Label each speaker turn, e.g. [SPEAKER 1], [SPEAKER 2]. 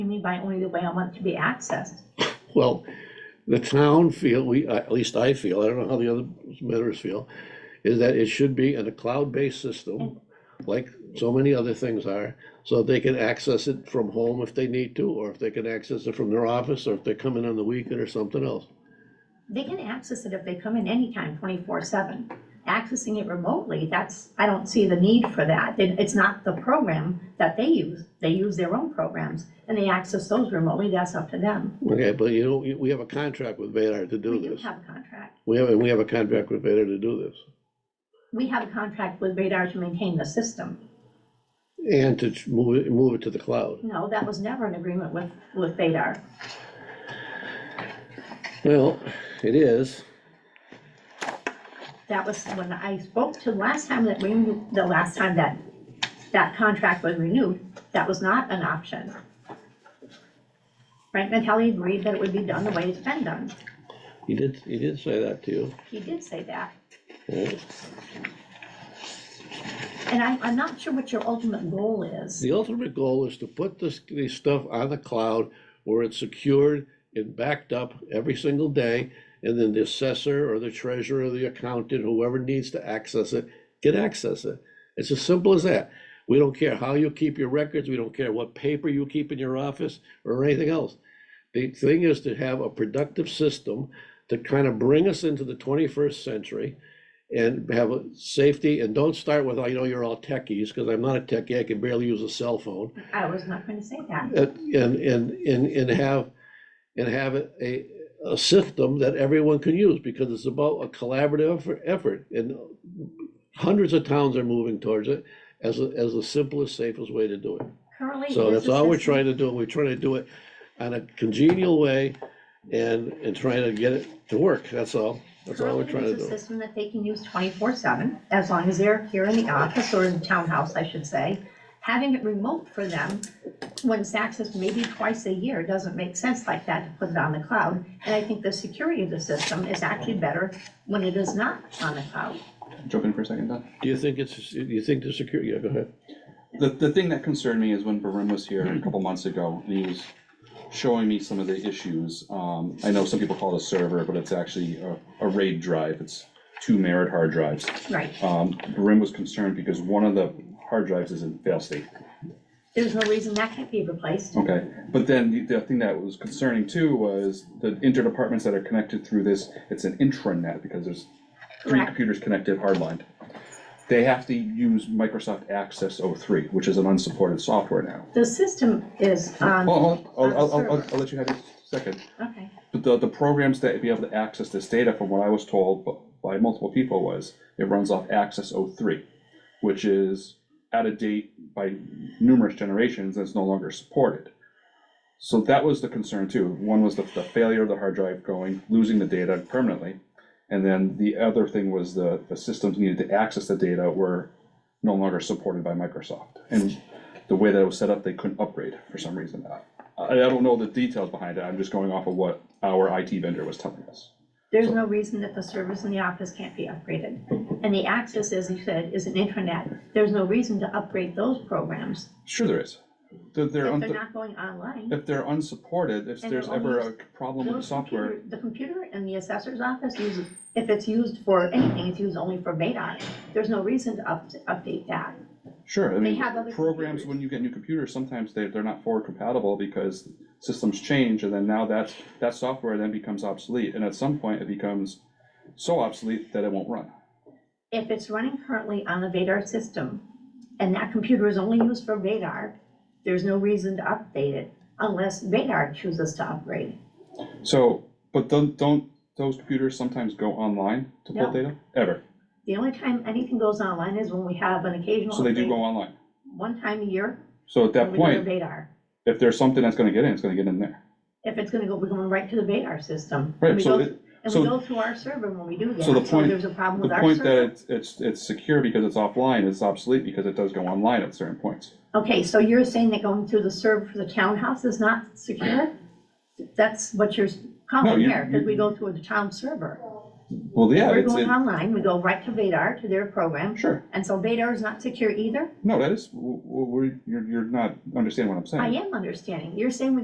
[SPEAKER 1] mean by only the way I want it to be accessed?
[SPEAKER 2] Well, the town feel, we, at least I feel, I don't know how the other members feel, is that it should be in a cloud-based system,
[SPEAKER 1] Mm.
[SPEAKER 2] like so many other things are, so they can access it from home if they need to, or if they can access it from their office, or if they're coming on the weekend or something else.
[SPEAKER 1] They can access it if they come in anytime, twenty-four seven. Accessing it remotely, that's, I don't see the need for that. It- It's not the program that they use. They use their own programs and they access those remotely, that's up to them.
[SPEAKER 2] Okay, but you know, we- we have a contract with Vadar to do
[SPEAKER 1] We do
[SPEAKER 2] this.
[SPEAKER 1] have a contract.
[SPEAKER 2] We have, and we have a contract with Vadar to do this,
[SPEAKER 1] We have a contract with Radar to maintain the system.
[SPEAKER 2] and to ch- move it, move it to the cloud.
[SPEAKER 1] No, that was never an agreement with, with Vadar.
[SPEAKER 2] Well, it is,
[SPEAKER 1] That was when I spoke to last time that we, the last time that, that contract was renewed, that was not an option. Frank Mattelli agreed that it would be done the way it's been done.
[SPEAKER 2] he did, he did say that to you.
[SPEAKER 1] He did say that.
[SPEAKER 2] Yeah.
[SPEAKER 1] And I'm, I'm not sure what your ultimate goal is.
[SPEAKER 2] The ultimate goal is to put this, this stuff on the cloud where it's secured and backed up every single day. And then the assessor or the treasurer or the accountant, whoever needs to access it, can access it. It's as simple as that. We don't care how you keep your records, we don't care what paper you keep in your office or anything else. The thing is to have a productive system to kind of bring us into the twenty-first century and have a safety, and don't start with, I know you're all techies, because I'm not a techie, I can barely use a cell phone.
[SPEAKER 1] I was not going to say that.
[SPEAKER 2] And, and, and, and and have, and have a, a system that everyone can use, because it's about a collaborative effort- effort. And hundreds of towns are moving towards it as, a- as the simplest, safest way to do it.
[SPEAKER 1] Currently. it
[SPEAKER 2] So
[SPEAKER 1] is
[SPEAKER 2] that's
[SPEAKER 1] a
[SPEAKER 2] all we're
[SPEAKER 1] system-
[SPEAKER 2] trying to do, we're trying to do it on a congenial way and, and trying to get it to work, that's all, that's all we're
[SPEAKER 1] Currently,
[SPEAKER 2] trying to
[SPEAKER 1] it is a
[SPEAKER 2] do.
[SPEAKER 1] system that they can use twenty-four seven, as long as they're here in the office or in the townhouse, I should say. Having it remote for them, when it's accessed maybe twice a year, doesn't make sense like that to put it on the cloud. And I think the security of the system is actually better when it is not on the cloud.
[SPEAKER 3] jump in for a second, Don.
[SPEAKER 2] Do you think it's, do you think the security, yeah, go ahead.
[SPEAKER 3] The, the thing that concerned me is when Barim was here a couple months ago, and he was showing me some of the issues. Um, I know some people call it a server, but it's actually a, a RAID drive, it's two merit hard drives.
[SPEAKER 1] Right.
[SPEAKER 3] Um, Barim was concerned because one of the hard drives is in fail state.
[SPEAKER 1] There's no reason that can't be replaced.
[SPEAKER 3] Okay, but then the, the thing that was concerning too was the interdepartments that are connected through this, it's an intranet because there's three
[SPEAKER 1] Correct.
[SPEAKER 3] computers connected hardlined. They have to use Microsoft Access 03, which is an unsupported software now.
[SPEAKER 1] The system is on.
[SPEAKER 3] Hold,
[SPEAKER 1] on
[SPEAKER 3] hold,
[SPEAKER 1] the
[SPEAKER 3] I'll, I'll, I'll,
[SPEAKER 1] server.
[SPEAKER 3] I'll let you have your second.
[SPEAKER 1] Okay.
[SPEAKER 3] But the, the programs that be able to access this data, from what I was told bu- by multiple people, was it runs off Access 03, which is out of date by numerous generations and it's no longer supported. So that was the concern too. One was the, the failure of the hard drive going, losing the data permanently. And then the other thing was the, the systems needed to access the data were no longer supported by Microsoft. And the way that it was set up, they couldn't upgrade for some reason. Uh, I, I don't know the details behind it, I'm just going off of what our IT vendor was telling us.
[SPEAKER 1] There's no reason that the servers in the office can't be upgraded. And the access, as you said, is an intranet. There's no reason to upgrade those programs
[SPEAKER 3] Sure there is. They're, they're,
[SPEAKER 1] if they're
[SPEAKER 3] un-
[SPEAKER 1] not going online.
[SPEAKER 3] if they're unsupported, if
[SPEAKER 1] And
[SPEAKER 3] there's
[SPEAKER 1] they're only
[SPEAKER 3] ever a
[SPEAKER 1] used-
[SPEAKER 3] problem with the
[SPEAKER 1] those
[SPEAKER 3] software,
[SPEAKER 1] computer- The computer in the assessor's office uses, if it's used for anything, it's used only for VEDAR. There's no reason to up, to update that.
[SPEAKER 3] Sure, I mean,
[SPEAKER 1] have other
[SPEAKER 3] programs,
[SPEAKER 1] computers.
[SPEAKER 3] when you get new computers, sometimes they, they're not forward compatible because systems change, and then now that's, that software then becomes obsolete, and at some point, it becomes so obsolete that it won't run.
[SPEAKER 1] If it's running currently on the VEDAR system and that computer is only used for VEDAR, there's no reason to update it unless VEDAR chooses to upgrade.
[SPEAKER 3] So, but don't, don't those computers sometimes go online to
[SPEAKER 1] No.
[SPEAKER 3] pull data? Ever,
[SPEAKER 1] The only time anything goes online is when we have an occasional.
[SPEAKER 3] so they do
[SPEAKER 1] update.
[SPEAKER 3] go online.
[SPEAKER 1] one time a year.
[SPEAKER 3] So at that
[SPEAKER 1] we go to
[SPEAKER 3] point,
[SPEAKER 1] Vadar.
[SPEAKER 3] if there's something that's gonna get in, it's gonna get in there.
[SPEAKER 1] If it's gonna go, we're going right to the Vadar system. And
[SPEAKER 3] Right,
[SPEAKER 1] we
[SPEAKER 3] so
[SPEAKER 1] go-
[SPEAKER 3] it-
[SPEAKER 1] And
[SPEAKER 3] so-
[SPEAKER 1] we go through our server when we do that.
[SPEAKER 3] So the point-
[SPEAKER 1] There's a problem
[SPEAKER 3] The
[SPEAKER 1] with our
[SPEAKER 3] point that
[SPEAKER 1] server.
[SPEAKER 3] it's, it's, it's secure because it's offline, it's obsolete because it does go online at certain points.
[SPEAKER 1] Okay, so you're saying that going through the server for the townhouse is not secure? That's what you're
[SPEAKER 3] No,
[SPEAKER 1] calling
[SPEAKER 3] you-
[SPEAKER 1] here, because
[SPEAKER 3] you-
[SPEAKER 1] we go through the town server.
[SPEAKER 3] Well, yeah,
[SPEAKER 1] We're
[SPEAKER 3] it's,
[SPEAKER 1] going
[SPEAKER 3] it-
[SPEAKER 1] online, we go right to Vadar, to their program.
[SPEAKER 3] sure.
[SPEAKER 1] And so Vadar is not secure either?
[SPEAKER 3] No, that is, w- w- we're, you're, you're not understanding what I'm saying.
[SPEAKER 1] I am understanding. You're saying we